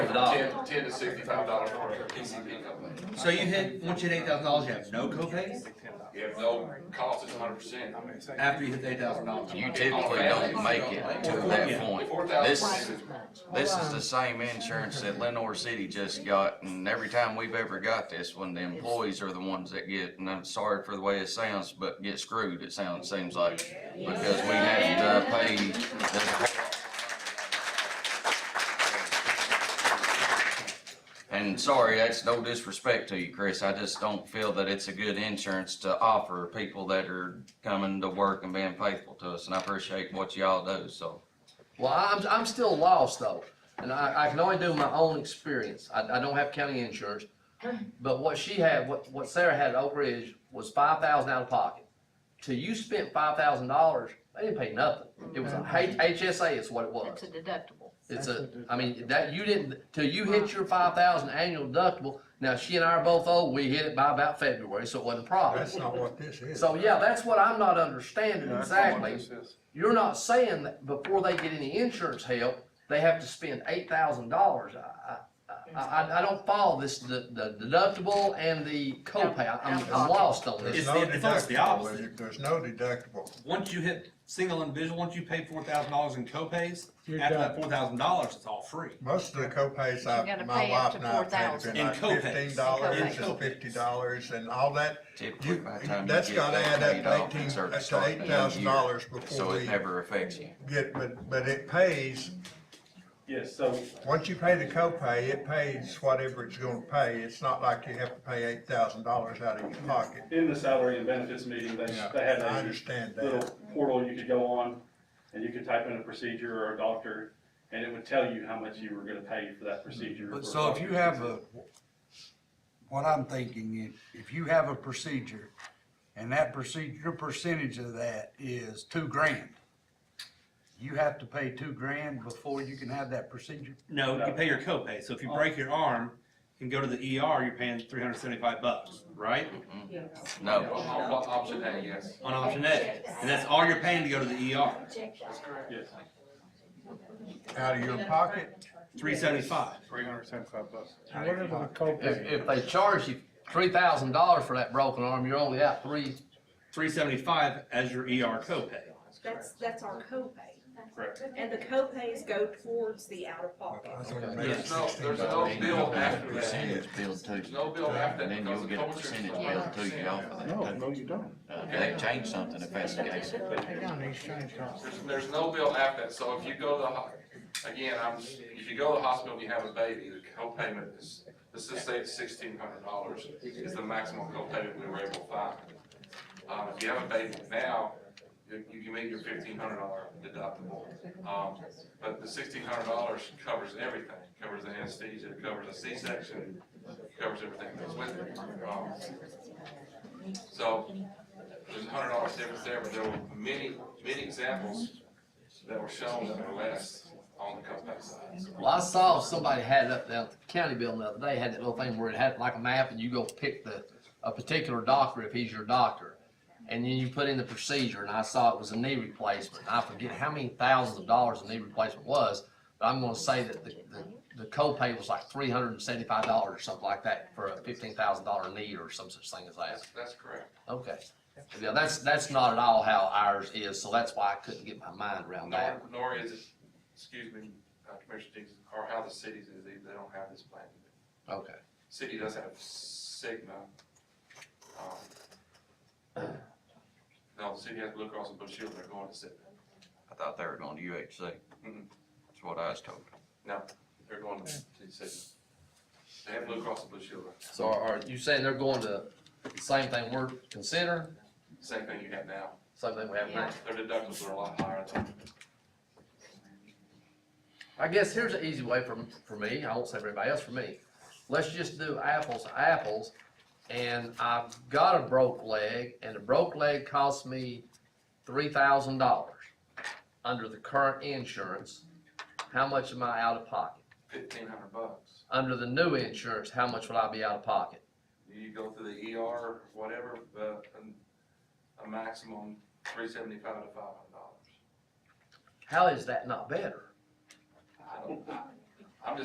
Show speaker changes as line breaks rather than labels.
dollars.
Ten, ten to sixty-five dollars for a PC pickup.
So you hit, once you hit eight thousand dollars, you have no copay
You have no cost, it's hundred percent.
after you hit eight thousand dollars.
You typically don't make it to that point.
Four
This,
thousand.
this is the same insurance that Lenore City just got, and every time we've ever got this one, the employees are the ones that get, and I'm sorry for the way it sounds, but get screwed, it sounds, seems like, because we have to pay the. And sorry, that's no disrespect to you, Chris, I just don't feel that it's a good insurance to offer people that are coming to work and being faithful to us, and I appreciate what y'all do, so.
Well, I'm, I'm still lost though, and I, I can only do my own experience. I, I don't have county insurance. But what she had, what, what Sarah had at Oak Ridge was five thousand out of pocket. Till you spent five thousand dollars, they didn't pay nothing. It was a H- HSA is what it
It's
was.
a deductible.
It's a, I mean, that, you didn't, till you hit your five thousand annual deductible, now she and I are both old, we hit it by about February, so it wasn't a problem.
That's not what this is.
So, yeah, that's what I'm not understanding exactly. You're not saying that before they get any insurance help, they have to spend eight thousand dollars. I, I, I, I don't follow this, the, the deductible and the copay. I- I'm, I'm lost on
There's
this.
It's
no
the- it's almost the
deductible.
opposite.
There's no deductible.
Once you hit single individual, once you pay four thousand dollars in copays,
You're
after
done.
that four thousand dollars, it's all free.
Most of the copays I,
gotta
my
pay up
wife
to
and I have paid have been
In
like
copays.
fifteen dollars
In
and
copays.
fifty dollars and all that.
Typically,
You,
by the time you
that's
get
gotta
that
add
paid
up
off,
to eighteen,
it's already
to
starting
eight
in
thousand dollars
a year, So
before
it
we
never affects you.
get, but, but it pays,
Yes, so
once you pay the copay, it pays whatever it's gonna pay. It's not like you have to pay eight thousand dollars out of your pocket.
in the salary and benefits meeting, they, they
Yeah,
had
I
a
understand
little
that.
portal you could go on and you could type in a procedure or a doctor and it would tell you how much you were gonna pay for that procedure.
Mm-hmm. But
or
so if you
doctor.
have a, what I'm thinking is, if you have a procedure, and that procedure, your percentage of that is two grand, you have to pay two grand before you can have that procedure?
No, you
No.
pay your copay, so if you break your arm and go to the ER, you're paying three hundred seventy-five bucks, right?
No,
Option A, yes.
On option A, and that's all you're paying to go to the ER,
Yes,
Out of your pocket,
three seventy-five.
Three hundred seventy-five bucks.
Whatever the
If,
copay,
if they charge you three thousand dollars for that broken arm, you're only out three.
Three seventy-five as your ER copay.
That's, that's our copay,
Correct.
and the copays go towards the out-of-pocket.
I think it
There's
pays
no,
sixteen
there's no
dollars.
then you'll
bill
get a
after that.
percentage bill too,
There's no bill after that.
and then
because
you'll
the
get a
co-insurance is
percentage bill
100%.
too, y'all, for
no,
that.
no, you don't.
Uh, They changed something if that's the case.
Down these things are-
There's, there's no bill after that, so if you go to the, ho- again, I'm, if you go to the hospital and you have a baby, the co-payment is, let's just say it's sixteen hundred dollars is the maximum co-payment we were able to find. Um, if you have a baby now, you, you can meet your fifteen hundred dollar deductible. Um, but the sixteen hundred dollars covers everything, covers the anesthesia, it covers the C-section, covers everything that goes with it. Um, So, there's a hundred dollar difference there, but there were many, many examples that were shown that were less on the cutback side.
Well, I saw somebody had it up down at the county building the other day, had that little thing where it had like a map and you go pick the, a particular doctor if he's your doctor. And then you put in the procedure and I saw it was a knee replacement. I forget how many thousands of dollars the knee replacement was, but I'm gonna say that the, the, the copay was like three hundred and seventy-five dollars or something like that for a fifteen thousand dollar knee or some such thing as that.
That's, that's correct.
Okay. Yeah, that's, that's not at all how ours is, so that's why I couldn't get my mind around that.
Nor, nor is it, excuse me, uh, Commissioner Dees, or how the cities is, they, they don't have this plan.
Okay.
City does have Cigna. um, No, the city has Blue Cross and Blue Shield, they're going to Cigna.
I thought they were going to UHC.
Mhm.
That's what I was told.
No, they're going to Cigna. They have Blue Cross and Blue Shield,
So are are you saying they're going to the same thing we're considering,
same thing you have now.
same thing we have now?
Their deductibles are a lot higher than.
I guess here's an easy way for, for me, I won't say for anybody else, for me. Let's just do apples to apples, and I've got a broke leg, and a broke leg costs me three thousand dollars under the current insurance. How much am I out of pocket?
fifteen hundred bucks.
Under the new insurance, how much would I be out of pocket?
You go through the ER, whatever, but a, a maximum three seventy-five to five hundred dollars.
How is that not better?
I don't, I-